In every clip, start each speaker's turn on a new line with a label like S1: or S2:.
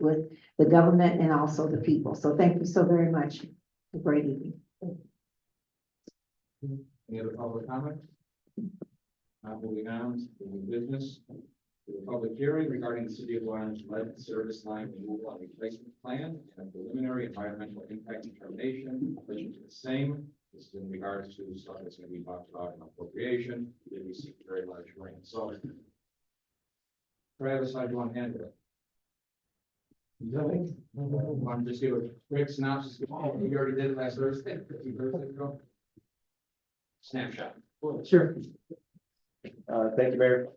S1: with the government and also the people. So thank you so very much. Have a Great evening.
S2: Any other public comment? Not moving on to the business. To The public hearing regarding the city of Orange lead service line removal and replacement plan and preliminary environmental impact determination relation to the same. This is in regards to stuff that's gonna be talked about in appropriation, they received very large rain, so. Travis, how do you want to handle it? Nothing. I'm just give a quick synopsis, we already did it last Thursday, Thursday ago snapshot.
S3: Sure. Uh, thank you, Mayor.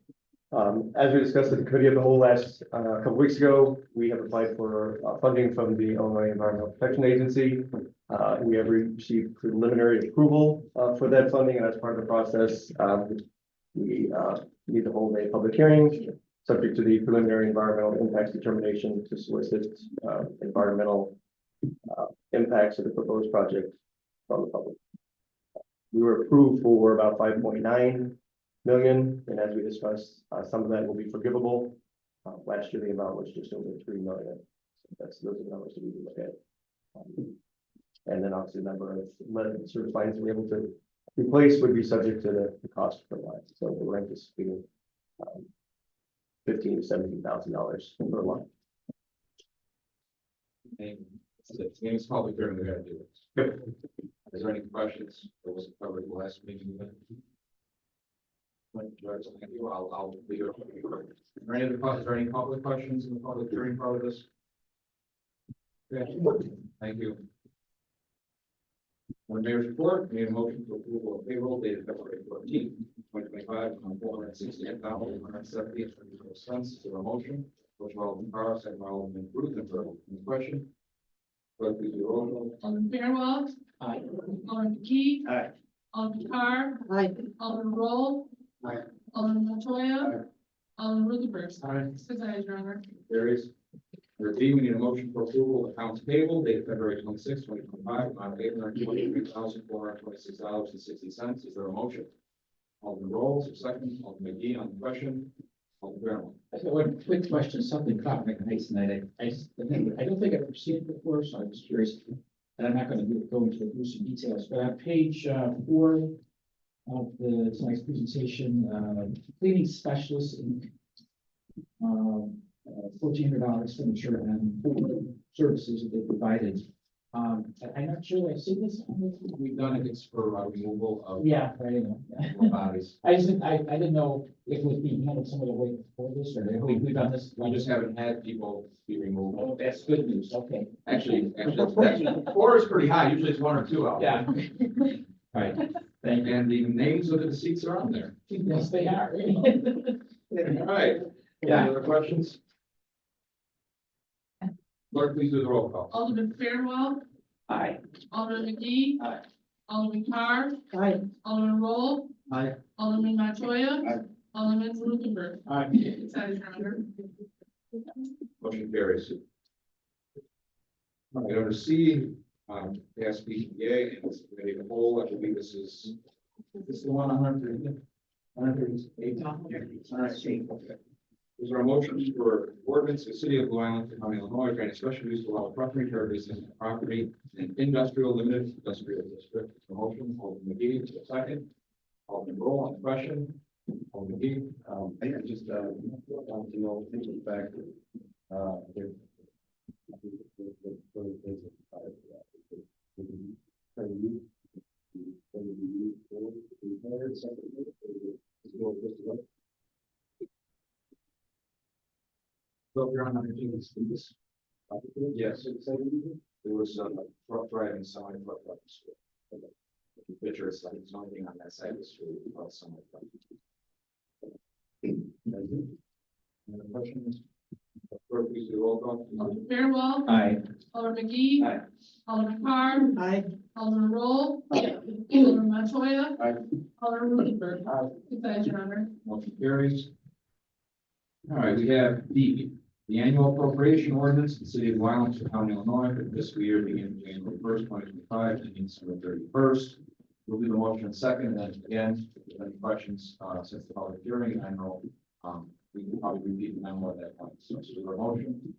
S3: Um, as we discussed at the committee of the whole last, uh, couple weeks ago, we have applied for uh, funding from the Illinois Environmental Protection Agency. Uh, we have received preliminary approval, uh, for that funding, and as part of the process, um, we, uh, need to hold a public hearing subject to the preliminary environmental impacts determination to solicit, uh, environmental, uh, impacts of the proposed project from the public. We were approved for about five point nine million, and as we discussed, uh, some of that will be forgivable. Uh, last year, the amount was just over three million. So That's, those are the numbers that we can look at. Um, And then obviously, the number of lead service lines we're able to replace would be subject to the, the cost per line, so we're anticipating um, fifteen to seventeen thousand dollars per line.
S2: Name, it's name's public hearing, we gotta do it. Is there any questions? It was covered the last meeting. but- When George, thank you, I'll, I'll leave it. open. Are there any other, pub- is there any public questions in the public hearing part of this? Yeah, thank you. On the mayor's report, we have a motion to approval of payroll dated February fourteenth, twenty twenty-five, on four hundred sixty-eight thousand, one hundred seventy, and twenty-four cents. Is there a motion? Which Alderman Carl, second by Alderman Ruthenberg, any question? Clerk, please do the roll call.
S4: Alderman Fairwell.
S2: Aye.
S4: Alderman Key.
S2: Aye.
S4: Alderman Carr.
S1: Aye.
S4: Alderman Roll.
S2: Aye.
S4: Alderman Montoya. Alderman Ruthenberg.
S2: Aye.
S4: Six eyes, Your Honor.
S2: There is. Under B, we need a motion for approval of accounts payable dated February twenty-six, twenty twenty-five, amount of eight hundred twenty-three thousand, four hundred twenty-six dollars and sixty cents. Is there a motion? Alderman Rolls, your second, Alderman McGee on the question. Alderman Fairwell.
S5: I got one quick question, something caught my eye tonight. I, I, just- I don't think I've seen it before, so I'm just curious. And I'm not gonna do- go into the gruesome details, but on page, uh, four of the tonight's presentation, uh, cleaning specialist Inc. Um, fourteen hundred dollars expenditure and four services that they provided. Um, I- I'm not sure I've seen this. on the-
S2: We've done it, it's for uh, removal of
S5: Yeah, I know.
S2: bodies.
S5: I just, didn't- I, I didn't know if it was being handled some other way before this or they- we, we've done this.
S2: We just haven't had people be removed.
S5: Oh, that's good news, okay.
S2: Actually, actually, that's- that's- four is pretty high, usually it's one or two out.
S5: Yeah. All right, thank you.
S2: And the names of the deceased are on there.
S5: Yes, they are.
S2: All right. Any
S5: Yeah.
S2: other questions? Clerk, please do the roll call.
S4: Alderman Fairwell.
S5: Aye.
S4: Alderman McGee.
S5: Aye.
S4: Alderman Carr.
S1: Aye.
S4: Alderman Roll.
S2: Aye.
S4: Alderman Montoya.
S2: Aye.
S4: Alderman Ruthenberg.
S5: Aye.
S4: Six eyes, Your Honor.
S2: Motion carries. All right, under C, um, pass BPA and this committee of the whole, I believe this is. This is the one on hundred. Hundred eight. Is there a motion for ordinance to city of Blue Island, County of Illinois, granting special use to allow property charges and property in industrial limited industrial district? Is there a Motion, Alderman McGee, is there a second. Alderman Roll on the question. Alderman McGee.
S6: Um, I I just, uh, want to know, think of the fact that, uh, there.
S2: So you're on under G, this. Yes. There was uh, a truck driving someone truck up the street. The picture is like something on that side of the street, about someone. Any other questions? Clerk, please do the roll call.
S4: Alderman Fairwell.
S5: Aye.
S4: Alderman McGee.
S2: Aye.
S4: Alderman Carr.
S1: Aye.
S4: Alderman Roll. Alderman Montoya.
S2: Aye.
S4: Alderman Ruthenberg.
S2: Aye.
S4: Six eyes, Your Honor.
S2: Motion carries. All right, we have D, the annual appropriation ordinance in the city of Wyland, County, Illinois, for the fiscal year beginning January first, twenty twenty-five, ending December thirty-first. We'll do the motion in a second, and then again, if there are any questions, uh, since the public hearing, I know, um, we can probably repeat the memo at that point, so this is a motion.